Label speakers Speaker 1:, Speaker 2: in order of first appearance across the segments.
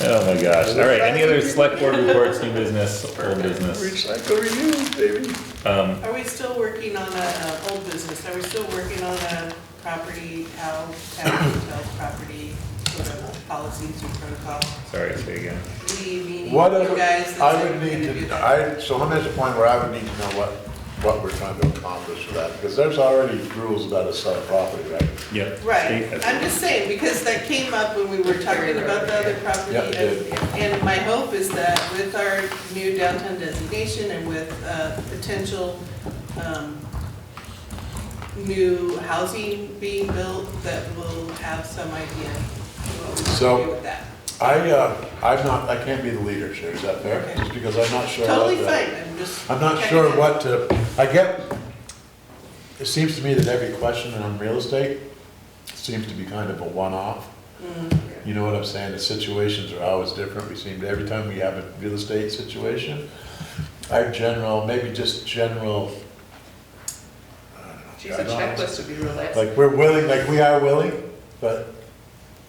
Speaker 1: Oh my gosh. All right, any other select board reports, new business, old business?
Speaker 2: Recycle reuse, baby.
Speaker 1: Um,
Speaker 3: Are we still working on a, uh, old business, are we still working on a property, how, how to tell property, sort of policies or protocol?
Speaker 1: sorry, say again.
Speaker 3: We, meaning you
Speaker 2: What other,
Speaker 3: guys.
Speaker 2: I
Speaker 3: that's
Speaker 2: would
Speaker 3: gonna
Speaker 2: need
Speaker 3: do
Speaker 2: to,
Speaker 3: that.
Speaker 2: I, so I'm at the point where I would need to know what, what we're trying to accomplish with that, because there's already rules about a sell property, right?
Speaker 1: Yep.
Speaker 3: Right,
Speaker 1: state has-
Speaker 3: I'm just saying, because that came up when we were talking about the other property.
Speaker 2: Yeah, it did.
Speaker 3: and- And my hope is that with our new downtown designation and with uh, potential um, new housing being built, that we'll have some idea of what we
Speaker 2: So-
Speaker 3: do with that.
Speaker 2: I, uh, I'm not, I can't be the leader, sure, is that fair?
Speaker 3: Okay.
Speaker 2: Just because I'm not sure. what
Speaker 3: Totally
Speaker 2: the-
Speaker 3: fine, I'm just.
Speaker 2: I'm not
Speaker 3: checking
Speaker 2: sure
Speaker 3: in.
Speaker 2: what to, I get, it seems to me that every question on real estate seems to be kind of a one-off.
Speaker 4: Mm-hmm.
Speaker 2: You know what I'm saying? The situations are always different. We seem to, every time we have a real estate situation, our general, maybe just general. I don't know,
Speaker 4: Geez, a
Speaker 2: guidelines.
Speaker 4: checklist would be real nice.
Speaker 2: Like, we're willing, like, we are willing, but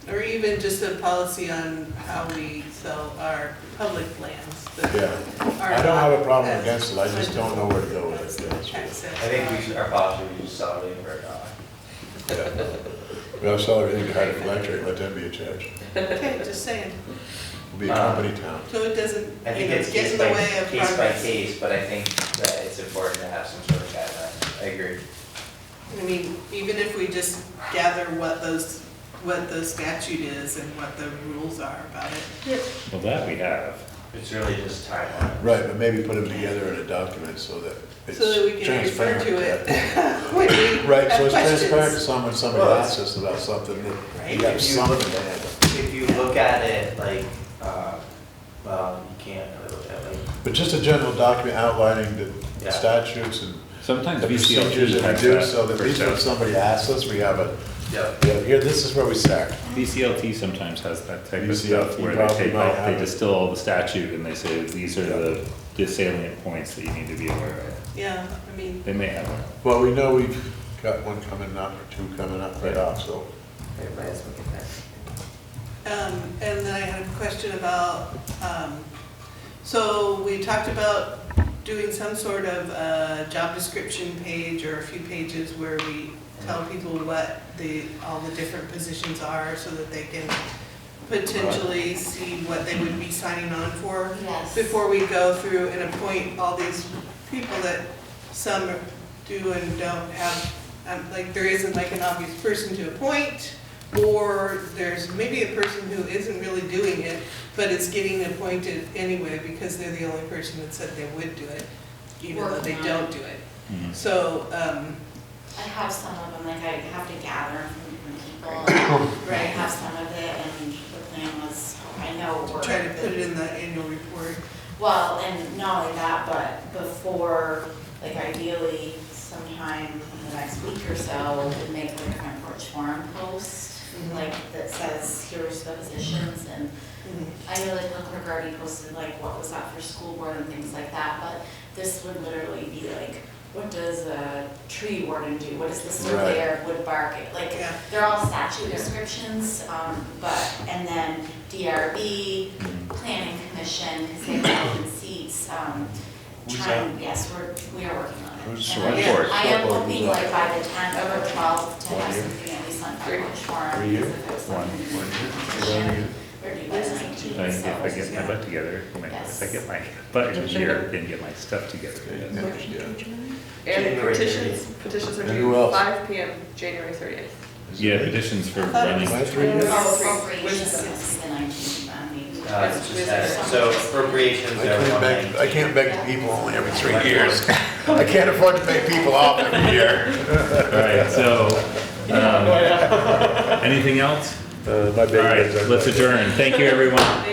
Speaker 3: Or even just a policy on how we sell our public lands. that
Speaker 2: Yeah.
Speaker 3: are
Speaker 2: I don't have a
Speaker 3: not
Speaker 2: problem
Speaker 3: as-
Speaker 2: against it, I just don't know where to go with it, to be honest with you.
Speaker 3: Access.
Speaker 5: I think we should, our policy, we should sell it for a dollar.
Speaker 2: we all sell everything to Hardwick Electric, let them be in charge.
Speaker 3: Okay, just saying,
Speaker 2: We'll be a company town.
Speaker 3: so it doesn't, you
Speaker 5: I
Speaker 3: know,
Speaker 5: think it's
Speaker 3: get
Speaker 5: case
Speaker 3: in
Speaker 5: by,
Speaker 3: the way of
Speaker 5: case by
Speaker 3: progress.
Speaker 5: case, but I think that it's important to have some sort of guideline. I agree.
Speaker 3: I mean, even if we just gather what those, what the statute is and what the rules are about it.
Speaker 1: Well, that we have.
Speaker 5: It's really just timeline.
Speaker 2: Right, but maybe put them together in a document so that it's
Speaker 3: So that we
Speaker 2: transparent.
Speaker 3: can refer to it.
Speaker 2: that-
Speaker 3: when we
Speaker 2: Right,
Speaker 3: have
Speaker 2: so it's
Speaker 3: questions.
Speaker 2: transparent to someone, somebody
Speaker 5: Well,
Speaker 2: asks us about something, that
Speaker 3: Right.
Speaker 2: you have
Speaker 5: If you-
Speaker 2: something to handle.
Speaker 5: If you look at it like, uh, well, you can't really look at it like,
Speaker 2: But just a general document outlining
Speaker 5: Yeah.
Speaker 2: the statutes and
Speaker 1: Sometimes
Speaker 2: the
Speaker 1: VCLT
Speaker 2: procedures that
Speaker 1: has
Speaker 2: we do,
Speaker 1: that.
Speaker 2: so that at
Speaker 1: for
Speaker 2: least when
Speaker 1: stuff.
Speaker 2: somebody asks us, we have a,
Speaker 5: yeah.
Speaker 2: we have- here, this is where we start.
Speaker 1: VCLT sometimes has that type of
Speaker 2: VCLT
Speaker 1: stuff where they
Speaker 2: probably
Speaker 1: take
Speaker 2: might
Speaker 1: off, they
Speaker 2: have it.
Speaker 1: distill all the statute and they say, these are
Speaker 2: Yeah.
Speaker 1: the the salient points that you need to be aware of.
Speaker 3: Yeah, I mean,
Speaker 1: They may have one.
Speaker 2: Well, we know we've got one coming up, or two coming up right off, so.
Speaker 4: Everybody else will get that.
Speaker 3: um, and then I had a question about, um, so we talked about doing some sort of uh job description page or a few pages where we tell people what the, all the different positions are so that they can potentially see what they would be signing on for.
Speaker 6: Yes.
Speaker 3: before we go through and appoint all these people that some do and don't have, um, like, there isn't like an obvious person to appoint, or there's maybe a person who isn't really doing it, but is getting appointed anyway because they're the only person that said they would do it, even though they
Speaker 6: Working on
Speaker 3: don't
Speaker 6: it.
Speaker 3: do it. So, um,
Speaker 6: I have some of them, like I have to gather them from different people. Right, I have some of it, and the plan was, I know we're.
Speaker 3: try to put it in the annual report.
Speaker 6: Well, and not only that, but before, like ideally sometime in the next week or so, we'd make like a front porch forum post, like that says, here's the positions, and
Speaker 3: Mm-hmm.
Speaker 6: I know like Hook Park already posted like what was up for school board and things like that, but this would literally be like, what does a tree warden do? What does the surveyor of wood bark? Like,
Speaker 3: Yeah.
Speaker 6: they're all statute descriptions, um, but, and then DRB, planning commission, because they have open seats, um,
Speaker 2: Who's
Speaker 6: trying, yes, we're, we are working on it.
Speaker 2: Who's
Speaker 6: And I
Speaker 2: select
Speaker 6: am-
Speaker 2: board?
Speaker 6: I
Speaker 2: Select
Speaker 6: am
Speaker 2: board,
Speaker 6: hoping
Speaker 2: who's
Speaker 6: like
Speaker 2: that?
Speaker 6: by the tenth or twelfth to
Speaker 2: One
Speaker 6: have
Speaker 2: year?
Speaker 6: something at least on Front Porch Forum.
Speaker 2: Three year?
Speaker 6: because if it was
Speaker 1: One.
Speaker 6: something- Or do by the
Speaker 1: If
Speaker 3: Mm-hmm.
Speaker 6: 19th,
Speaker 1: I if I
Speaker 6: so-
Speaker 1: get my butt together, if I- if I
Speaker 6: Yes.
Speaker 1: get my butt in here, then get my stuff together. yes.
Speaker 2: Yeah, yeah.
Speaker 4: And
Speaker 5: January
Speaker 4: petitions, petitions are
Speaker 2: And who
Speaker 4: due
Speaker 2: else?
Speaker 4: five P M, January thirtieth.
Speaker 1: Yeah, petitions for
Speaker 3: I thought it
Speaker 1: running.
Speaker 2: My three years?
Speaker 6: Oh,
Speaker 4: Three.
Speaker 6: appropriations,
Speaker 4: Wednesday.
Speaker 6: it's the nineteenth, I mean.
Speaker 5: Uh, it's just that- so
Speaker 2: I
Speaker 5: appropriations are
Speaker 2: can't
Speaker 5: one
Speaker 2: beg, I
Speaker 5: nineteen.
Speaker 2: can't beg people only every three years. I can't afford to pay people off every year.
Speaker 1: All right, so, um, anything else?
Speaker 2: Uh, my
Speaker 1: All right, let's adjourn. Thank you, everyone.